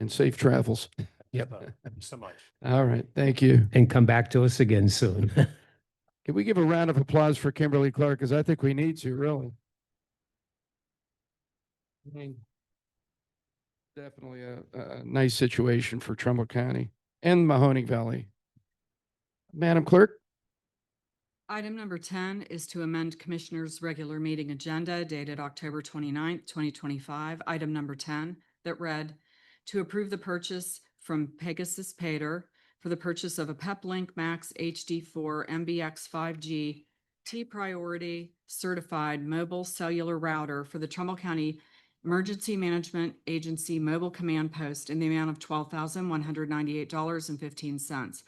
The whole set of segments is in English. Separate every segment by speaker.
Speaker 1: and safe travels.
Speaker 2: Yep.
Speaker 3: Uh, Thank you So much.
Speaker 1: All right, thank you.
Speaker 2: And come back to us again soon.
Speaker 1: Can we give a round of applause for Kimberly Clark? Because I think we need to, really. I mean, Definitely a, a a nice situation for Trumbull County and Mahoning Valley. Madam Clerk,
Speaker 4: Item number ten is to amend Commissioners' regular meeting agenda dated October 29th, twenty-five, item number ten, that read, to approve the purchase from Pegasus Pater for the purchase of a Peplink Max HD four MBX five G T-Priority Certified Mobile Cellular Router for the Trumbull County Emergency Management Agency Mobile Command Post in the amount of twelve thousand one hundred ninety-eight dollars and fifteen cents.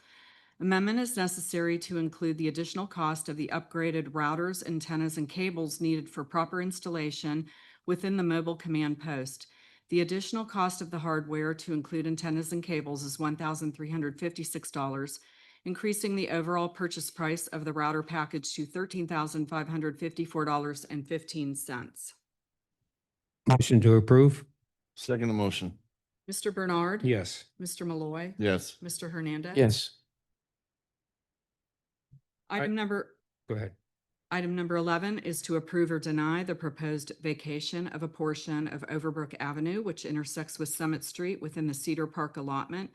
Speaker 4: Amendment is necessary to include the additional cost of the upgraded routers, antennas, and cables needed for proper installation within the mobile command post. The additional cost of the hardware to include antennas and cables is one thousand three hundred fifty-six dollars, increasing the overall purchase price of the router package to thirteen thousand five hundred fifty-four dollars and fifteen cents.
Speaker 2: Motion to approve?
Speaker 3: Second motion.
Speaker 4: Mr. Bernard.
Speaker 2: Yes.
Speaker 4: Mr. Malloy.
Speaker 3: Yes.
Speaker 4: Mr. Hernandez.
Speaker 1: yes.
Speaker 4: Item number
Speaker 2: Go ahead.
Speaker 4: Item number 11 is to approve or deny the proposed vacation of a portion of Overbrook Avenue, which intersects with Summit Street within the Cedar Park allotment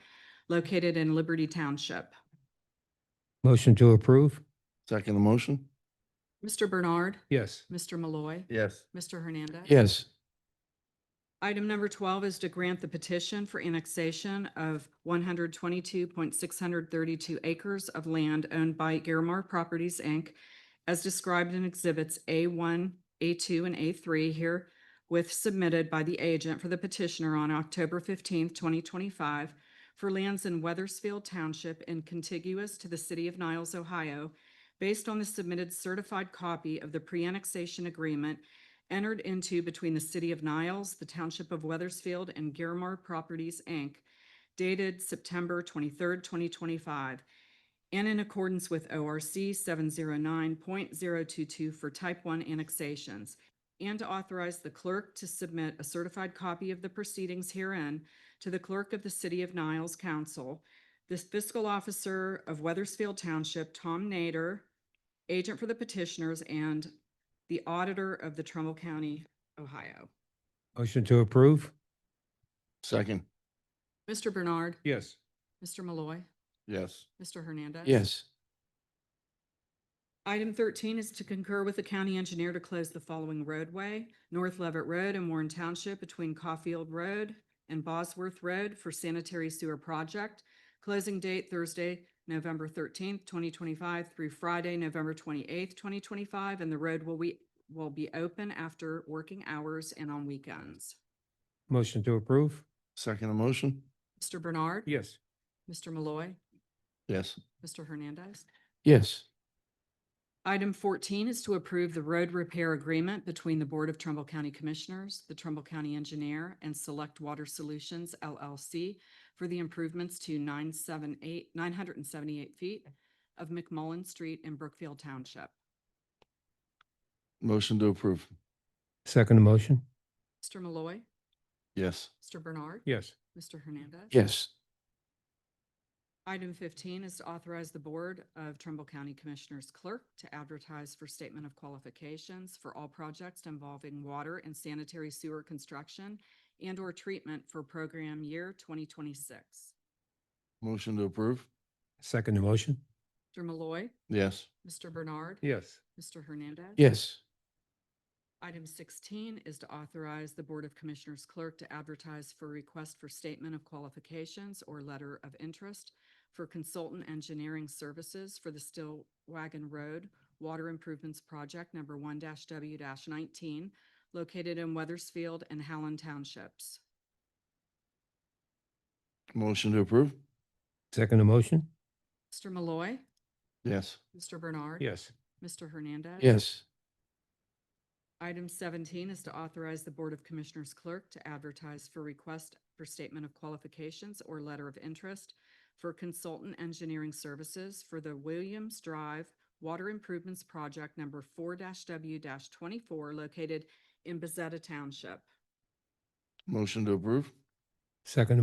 Speaker 4: located in Liberty Township.
Speaker 2: Motion to approve?
Speaker 3: Second motion.
Speaker 4: Mr. Bernard,
Speaker 2: Yes.
Speaker 4: Mr. Malloy,
Speaker 3: Yes.
Speaker 4: Mr. Hernandez.
Speaker 1: Yes,
Speaker 4: Item number 12 is to grant the petition for annexation of 122.632 acres of land owned by Airmark Properties, Inc., as described in Exhibits A1, A2, and A3 here with submitted by the agent for the petitioner on October 15th, 2025, for lands in Weathersfield Township and contiguous to the city of Niles, Ohio, based on the submitted certified copy of the pre-annexation agreement entered into between the City of Niles, the Township of Weathersfield, and Guermar Properties, Inc., dated September 23rd, 2025, and in accordance with ORC 709.022 for Type 1 annexations, and to authorize the clerk to submit a certified copy of the proceedings herein to the clerk of the City of Niles Council, the fiscal officer of Weathersfield Township, Tom Nader, agent for the petitioners, and the auditor of the Trumbull County, Ohio.
Speaker 2: Motion to approve?
Speaker 3: Second.
Speaker 4: Mr. Bernard,
Speaker 2: Yes.
Speaker 4: Mr. Malloy,
Speaker 3: Yes.
Speaker 4: Mr. Hernandez.
Speaker 1: yes.
Speaker 4: Item thirteen is to concur with the county engineer to close the following roadway, North Levitt Road and Warren Township between Caulfield Road and Bosworth Road for sanitary sewer project. Closing date Thursday, November thirteenth, twenty twenty-five through Friday, November twenty-eighth, twenty twenty-five, and the road will be, will be open after working hours and on weekends.
Speaker 2: Motion to approve?
Speaker 3: Second motion.
Speaker 4: Mr. Bernard.
Speaker 2: Yes.
Speaker 4: Mr. Malloy,
Speaker 3: Yes.
Speaker 4: Mr. Hernandez.
Speaker 1: Yes,
Speaker 4: Item fourteen is to approve the road repair agreement between the Board of Trumbull County Commissioners, the Trumbull County Engineer, and Select Water Solutions LLC for the improvements to 978 978 feet of McMullen Street in Brookfield Township.
Speaker 3: Motion to approve.
Speaker 2: Second motion?
Speaker 4: Mr. Malloy,
Speaker 3: Yes.
Speaker 4: Mr. Bernard.
Speaker 2: Yes.
Speaker 4: Mr. Hernandez.
Speaker 1: yes.
Speaker 4: Item fifteen is to authorize the Board of Trumbull County Commissioners Clerk to advertise for statement of qualifications for all projects involving water and sanitary sewer construction and/or treatment for program year twenty twenty-six.
Speaker 3: Motion to approve.
Speaker 2: Second motion?
Speaker 4: Mr. Malloy,
Speaker 3: Yes.
Speaker 4: Mr. Bernard.
Speaker 2: Yes.
Speaker 4: Mr. Hernandez.
Speaker 1: Yes,
Speaker 4: Item sixteen is to authorize the Board of Commissioners clerk to advertise for request for statement of qualifications or letter of interest for consultant engineering services for the Still Wagon Road Water Improvements Project number one W nineteen located in Weathersfield and Howland Townships.
Speaker 3: Motion to approve.
Speaker 2: Second motion?
Speaker 4: Mr. Malloy,
Speaker 3: Yes.
Speaker 4: Mr. Bernard.
Speaker 2: Yes.
Speaker 4: Mr. Hernandez.
Speaker 1: yes.
Speaker 4: Item seventeen is to authorize the Board of Commissioners clerk to advertise for request for statement of qualifications or letter of interest for consultant engineering services for the Williams Drive Water Improvements Project number four W twenty-four located in Bezetta Township.
Speaker 3: Motion to approve.
Speaker 2: Second